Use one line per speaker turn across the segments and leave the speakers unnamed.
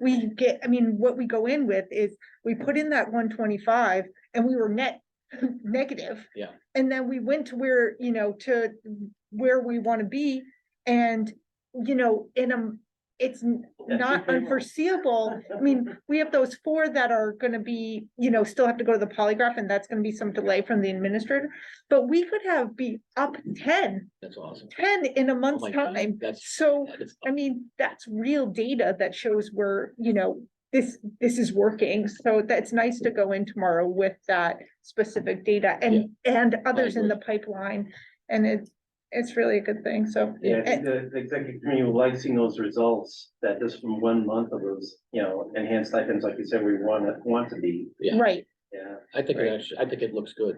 we get, I mean, what we go in with is, we put in that one twenty-five and we were net negative.
Yeah.
And then we went to where, you know, to where we wanna be and, you know, in a, it's n-
That's
not
what they want.
unforeseeable. I mean, we have those four that are gonna be, you know, still have to go to the polygraph and that's gonna be some delay from the administrator. But we could have be up 10,
That's awesome.
10 in a
Oh
month's
my God,
time.
That's,
So.
that is-
I mean, that's real data that shows where, you know, this, this is working. So that's nice to go in tomorrow with that specific data and, and others in the pipeline. And it's, it's really a good thing. So,
Yeah, I think the the executive committee will like seeing those results, that just from one month of those, you know, enhanced stipends, like you said, we want to, want to be,
Yeah.
right,
yeah.
I think
Right.
it actually, I think it looks good.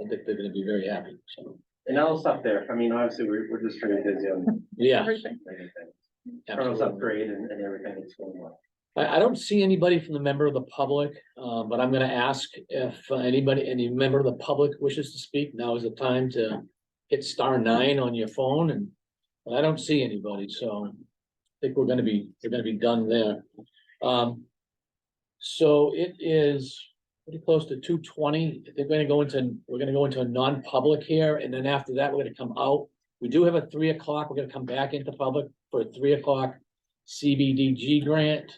I think they're gonna be very happy, so,
And I'll stop there, I mean, obviously, we're, we're just very busy on
yeah.
everything.
everything. Colonel's
absolutely.
upgrade and, and everything that's going on.
I, I don't see anybody from the member of the public, uh, but I'm gonna ask if uh, anybody, any member of the public wishes to speak. Now is the time to hit star nine on your phone and, but I don't see anybody, so I think we're gonna be, we're gonna be done there. Um, so it is pretty close to two twenty. They're gonna go into, we're gonna go into a non-public here, and then after that, we're gonna come out. We do have a three o'clock. We're gonna come back into public for a three o'clock CBDG grant.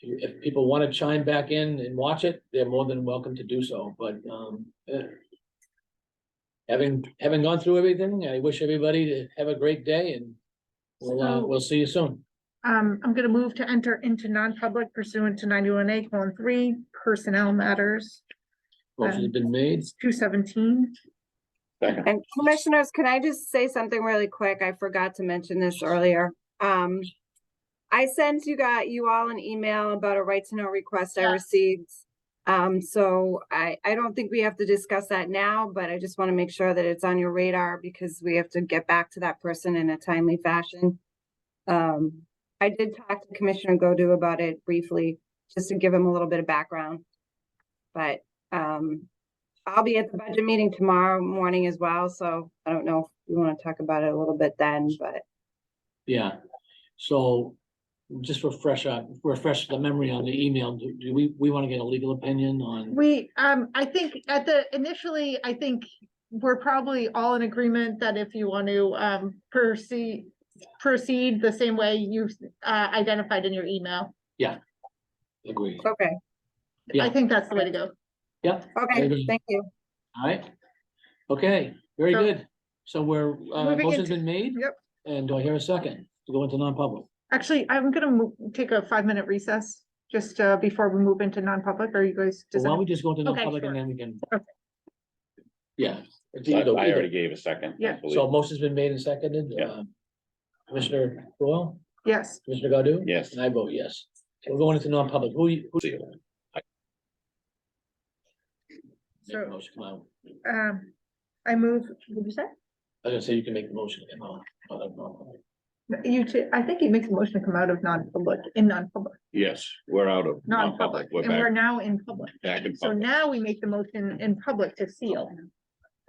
If you- If people want to chime back in and watch it, they're more than welcome to do so, but, um, eh, having, having gone through everything, I wish everybody to have a great day and we'll, uh,
So-
we'll see you soon.
Um, I'm gonna move to enter into non-public pursuant to ninety-one A colon three personnel matters,
Motion's been made.
two seventeen.
And commissioners, can I just say something really quick? I forgot to mention this earlier. Um, I sent you got you all an email about a right to know request I
Yeah.
received. Um, so I, I don't think we have to discuss that now, but I just want to make sure that it's on your radar because we have to get back to that person in a timely fashion. Um, I did talk to Commissioner Godu about it briefly, just to give him a little bit of background. But, um, I'll be at the budget meeting tomorrow morning as well, so I don't know if you want to talk about it a little bit then, but
Yeah, so just refresh up, refresh the memory on the email. Do do we, we want to get a legal opinion on?
We, um, I think at the, initially, I think we're probably all in agreement that if you want to, um, proceed, proceed the same way you, uh, identified in your email.
Agree.
okay,
Yeah.
I think that's the way to go.
Yep,
okay,
Maybe.
thank you.
all right. Okay, very
So-
good. So we're, uh,
Moving
motion's
into-
been made?
Yep.
And do I hear a second to go into non-public?
Actually, I'm gonna mo- take a five-minute recess just, uh, before we move into non-public. Are you guys?
Well,
does
Why don't
any-
we just go into
Okay,
non-public and
sure.
then we can?
Okay.
Yeah.
I I
Either- either.
already gave a second. I
Yeah.
believe.
So motion's been made and seconded.
Yeah.
um, Commissioner Foil,
Yes.
Commissioner Godu?
Yes.
And I vote yes. So We're going into non-public. Who, you- who?
See you.
Make the
So-
motion, come on.
Um, I move, what did you say?
I was gonna say you can make the motion. come on. Oh, no, no.
You two, I think he makes a motion to come out of non-public, in non-public,
Yes, we're out of
non-public,
non-public. We're
and we're
back,
now in public.
back in
So
public.
now we make the motion in public to seal.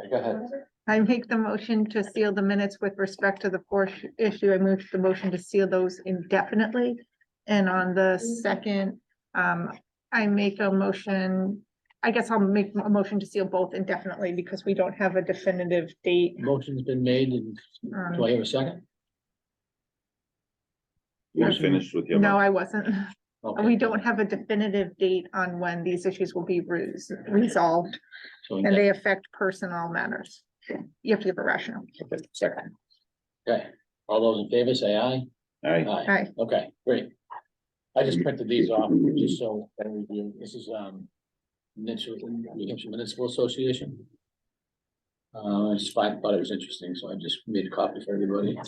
Go ahead.
I make the motion to seal the minutes with respect to the fourth issue. I move the motion to seal those indefinitely. And on the second, um, I make a motion, I guess I'll make a motion to seal both indefinitely because we don't have a definitive date.
Motion's been made and do I
Um,
hear a second?
You was finished with your.
no, I wasn't.
Okay.
We don't have a definitive date on when these issues will be res- resolved
So
and they affect personnel matters. You have to give a rationale.
Okay, Second.
Okay, all those in favor say aye.
All right.
Aye,
Aye.
okay, great. I just printed these off just so, I review. this is, um, Mitchell, New Hampshire Municipal Association. Uh, I just thought thought it was interesting, so I just made a copy for everybody.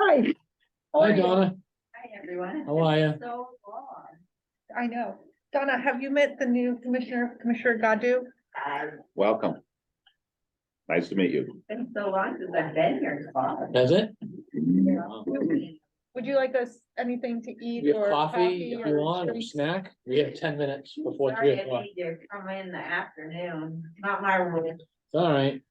Hi.
Hi Donna,
Hi, everyone.
how are you?
So long.
I know. Donna, have you met the new commissioner, Commissioner Godu?
I've
Welcome. Nice to meet you.
been so long since I've been here. Bob.
That's it?
You
Wow.
know, we-
Would you like us anything to eat?
We have
or
coffee if you
or
want, or
drinks?
snack. We have ten minutes before
Sorry,
three
I
o'clock.
need to come in the afternoon, not my room.
All right,